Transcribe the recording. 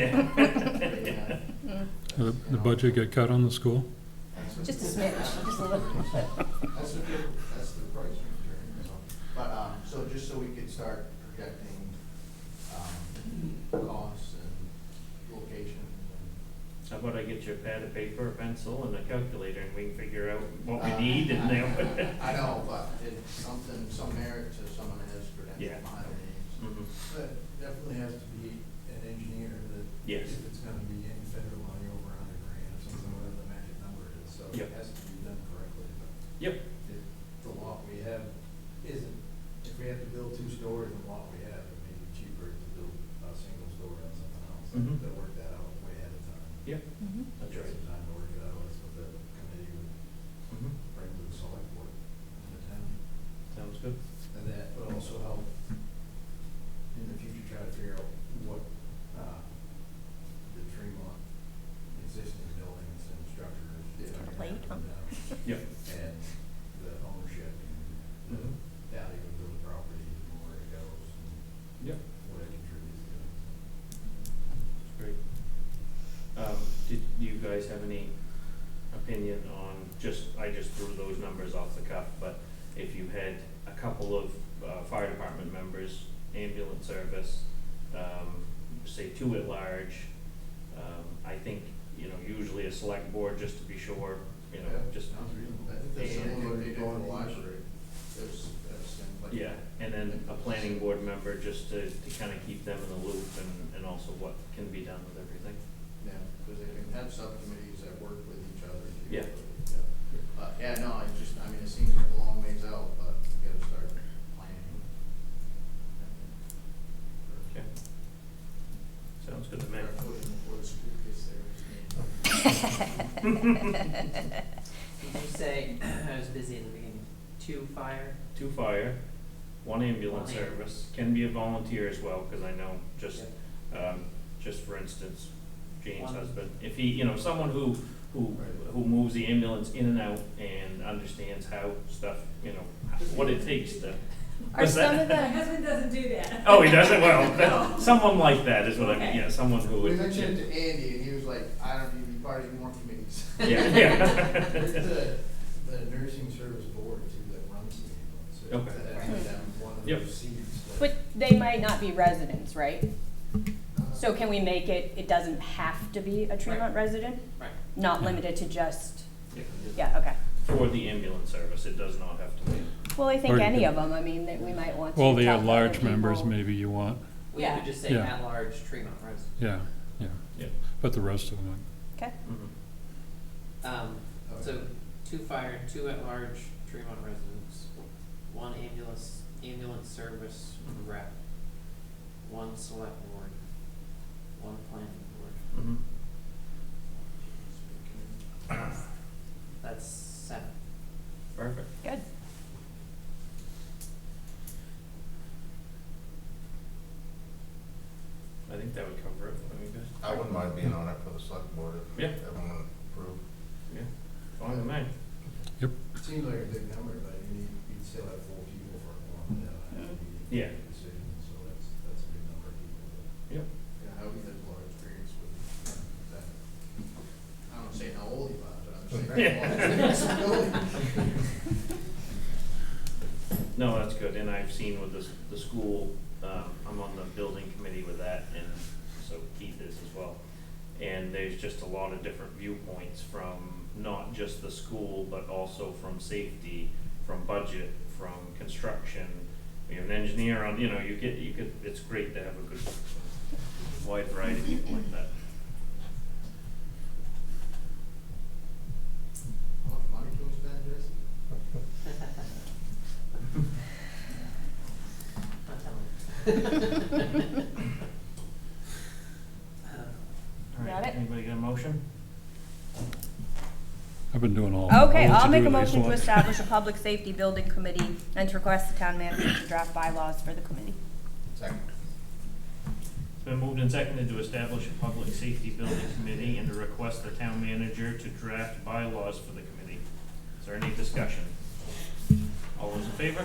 Yeah. The Uh, the budget get cut on the school? That's what- Just a smidge, just a little. That's what the, that's the price we're carrying, so. But, um, so just so we could start projecting, um, costs and locations and. How about I get you a pad of paper, a pencil, and a calculator, and we can figure out what we need and then. Uh, um, I know, but it's something, some merit to someone that has credentials Yeah. behind me. Mhm. But definitely has to be an engineer that. Yes. If it's gonna be any federal money over a hundred grand or something, whatever the magic number is, so it Yep. has to be done correctly, but Yep, if the lot we have isn't, if we have to build two stories on the lot we have, it may be cheaper to build a single story on something else. Mhm. They'll work that out way ahead of time. yep, that's Get right. Some time to work it out, that's what the committee would Mhm. bring to the select board in the town. Sounds good. And that would also help in the future try to figure out what, uh, the Tremont existing buildings and structures. if they're gonna Plate, huh? happen now, Yep. And the ownership and the Mhm. value of those properties and where it goes and Yep, what it contributes to. that's great. Um, did you guys have any opinion on, just, I just threw those numbers off the cuff, but if you had a couple of, uh, fire department members, ambulance service, um, say two at large, um, I think, you know, usually a select board, just to be sure, you know, just Sounds reasonable. I think that's And- similar to Going doing the to- library. There's, that's like. Yeah, and then a planning board member, just to, to kind of keep them in the loop and, and also what can be done with everything. Yeah, because they can have subcommittees that work with each other. too. Yeah. But, yeah, no, it just, I mean, it seems like a long ways out, but you gotta start planning. Okay. Sounds good to me. Start putting before the school gets there. Did you say, I was busy in the beginning, two fire? Two fire, one ambulance One ambulance. service, can be a volunteer as well, because I know, just, um, just for instance, Jane's One. husband, if he, you know, someone who, who, who moves the ambulance in and out and understands how stuff, you know, what it takes to. Are What's that? some of My the, husband doesn't do that. Oh, he doesn't, well, that- someone like that is what I mean, Okay. yeah, someone who We would. mentioned it to Andy, and he was like, I don't need to be part of any more committees. Yeah, yeah. The, the nursing service board too that runs the ambulance. so Okay. That would be down um, one of Yep. those seats. that- but they might not be residents, right? So can we make it, it doesn't have to be a Tremont resident? Right. Not Yeah. limited to just, Yeah. yeah, okay. For the ambulance service, it does not have to be. Well, I Or think you any could- of them, I mean, that we might want to. Well, the talk to other at-large members people. maybe you want, We could Yeah. just say Yeah. at-large Tremont resident. yeah, yeah. Yeah. But the rest of them, Okay, Mhm. Um, Okay. so two fire, two at-large Tremont residents, one ambulance, ambulance service rep, one select board, one planning board. Mhm. That's seven. Perfect. good. I think that would cover it. I mean, good. I wouldn't mind being on it for the select board Yeah. everyone approved. Yeah. Fine with me. Seems like a big number, but you need, you'd still have four people for a quorum that have to be Yeah. making decisions, so that's, that's a good number of people. Yep. Yeah, I would have a lot of experience with that. I don't wanna say how old he was, but I'm saying. how old he was. No, that's good. And I've seen with the, s- the school, um, I'm on the building committee with that and so Keith is as well. And there's just a lot of different viewpoints from not just the school, but also from safety, from budget, from construction. We have an engineer on, you know, you get, you could, it's great to have a good wide variety of people like that. How much money do we spend, Jason? Not telling. All right, Got it? Anybody got a motion? I've been doing all. Okay, all I'll make to-do a lists. motion to establish a public safety building committee and to request the town manager to draft bylaws for the committee. Second. It's been moved and seconded to establish a public safety building committee and to request the town manager to draft bylaws for the committee. Is there any discussion? All those in favor?